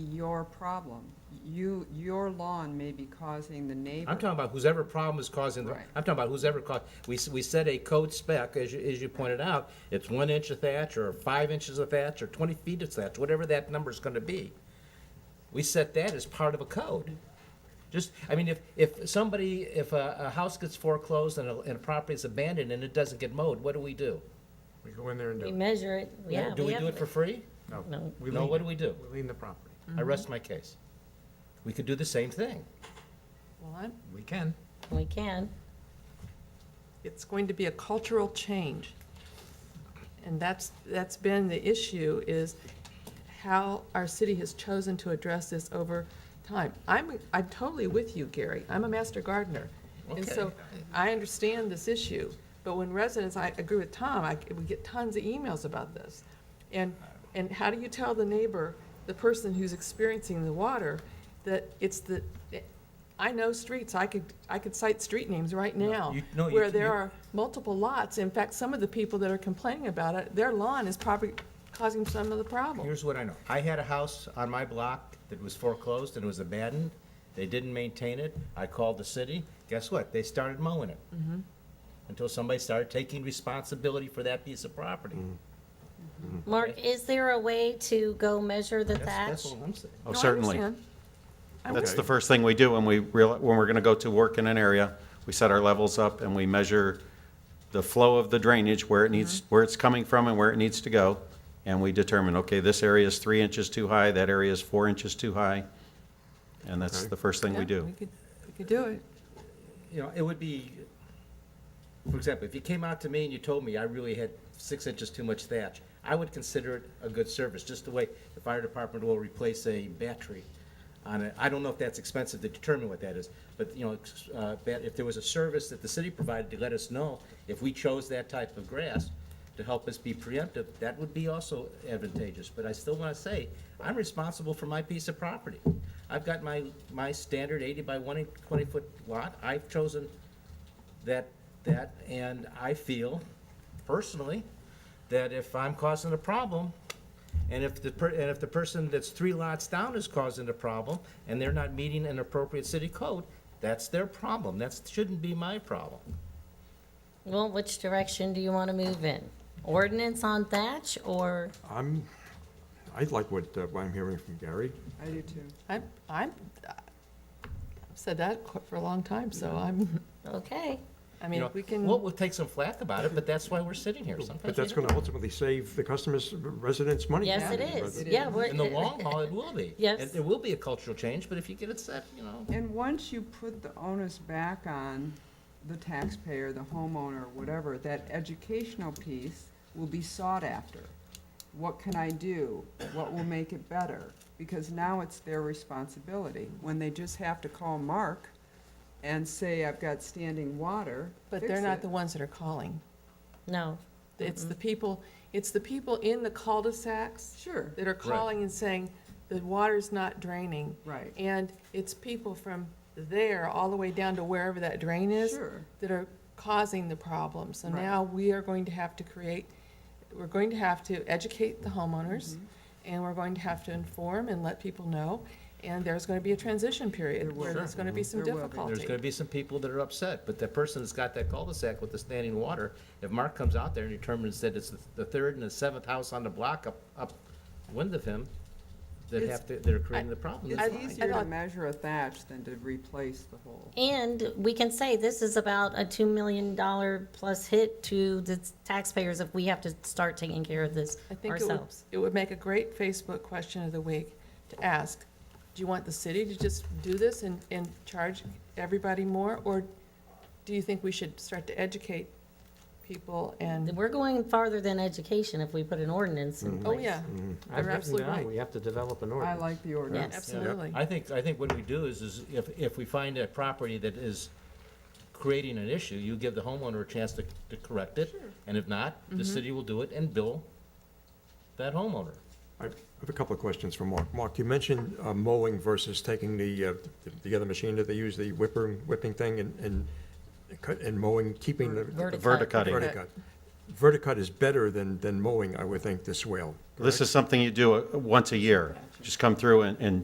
your problem. You, your lawn may be causing the neighbor. I'm talking about whose ever problem is causing, the. Right. I'm talking about whose ever caused, we, s- we set a code spec, as you, as you pointed out, it's one inch of thatch, or five inches of thatch, or twenty feet of thatch, whatever that number's gonna be. We set that as part of a code. Just, I mean, if, if somebody, if a, a house gets foreclosed and a, and a property is abandoned and it doesn't get mowed, what do we do? We go in there and do We it. measure it, yeah. Do we do have- it for free? No. No, lean- what do we do? We lean the property. I rest my case. We could do the same thing. Well, I'm, We can. We can. it's going to be a cultural change. And that's, that's been the issue, is how our city has chosen to address this over time. I'm, I'm totally with you, Gary. I'm a master gardener. And so Okay. I understand this issue, but when residents, I agree with Tom, I, we get tons of emails about this. And, and how do you tell the neighbor, the person who's experiencing the water, that it's the, I know streets, I could, I could cite street names right now, you- no, you where can- there you- are multiple lots. In fact, some of the people that are complaining about it, their lawn is probably causing some of the problem. Here's what I know. I had a house on my block that was foreclosed and was abandoned. They didn't maintain it. I called the city. Guess what? They started mowing it. Until somebody started taking responsibility for that piece of property. Mark, is there a way to go measure the Hmm. That's, that's thatch? all I'm saying. Oh, No, I certainly. understand. I That's the understand. first thing we do when we real, when we're gonna go to work in an area. We set our levels up and we measure the flow of the drainage, where Mm-hmm. it needs, where it's coming from and where it needs to go. And we determine, okay, this area is three inches too high, that area is four inches too high. And that's the first thing Yeah, we do. could- We could do it. You know, it would be, for example, if you came out to me and you told me I really had six inches too much thatch, I would consider it a good service, just the way the fire department will replace a battery on it. I don't know if that's expensive to determine what that is, but, you know, ex- uh, that if there was a service that the city provided to let us know if we chose that type of grass to help us be preemptive, that would be also advantageous. But I still want to say, I'm responsible for my piece of property. I've got my, my standard eighty by one twenty-foot lot. I've chosen that, that, and I feel personally that if I'm causing a problem, and if the, per- and if the person that's three lots down is causing a problem, and they're not meeting an appropriate city code, that's their problem. That shouldn't be my problem. Well, which direction do you want to move in? Ordinance on thatch or, I'm, I like what uh, I'm hearing from Gary. I do too. I'm, I'm, I've said that qu- for a long time, so I'm, okay, I You mean, know, we can. We'll, we'll take some flack about it, but that's why we're sitting here sometimes. But we that's don't. going to ultimately save the customers, residents money. yes, it is, yeah. we're- In the long haul, it will be. Yes. And There will be a cultural change, but if you get it set, you know. And once you put the onus back on the taxpayer, the homeowner, whatever, that educational piece will be sought after. What can I do? What will make it better? Because now it's their responsibility. When they just have to call Mark and say, I've got standing water, But fix they're not it." the ones that are calling. No, It's the people, it's the people in the cul-de-sacs Sure, that are calling and saying, the water's not draining. right, And it's people from there all the way down to wherever that drain is sure. that are causing the problem. So Right. now we are going to have to create, we're going to have to educate the homeowners, Mm-hmm. and we're going to have to inform and let people know. And there's going to be a transition There period where will. there's going to be some There will be. difficulty. There's gonna be some people that are upset, but the person that's got that cul-de-sac with the standing water, if Mark comes out there and determines that it's the- the third and the seventh house on the block up, upwind of him, that It's- have to, they're creating the problem. It's I- I easier to thought- measure a thatch than to replace the whole. And we can say this is about a $2 million plus hit to the taxpayers if we have to start taking care of this I think it would, ourselves. it would make a great Facebook question of the week to ask, do you want the city to just do this and, and charge everybody more? Or do you think we should start to educate people and, We're going farther than education if we put an ordinance Mm-hmm. in oh, place. yeah, I've You're written absolutely down, right. we have to develop an I ordinance. like the ordinance. Yes. absolutely. I think, I think what we do is, is if, if we find a property that is creating an issue, you give the homeowner a chance to, to correct it. And if not, Mm-hmm. the city will do it and bill that homeowner. I have a couple of questions for Mark. Mark, you mentioned uh, mowing versus taking the, uh, the- the other machine that they use, the whipper, whipping thing, and, and cut- and mowing, keeping the. Verticut. Verticutting. Verticut. Verticut is better than, than mowing, I would think, the swale. This is something you do uh, once a year. Just come through and, and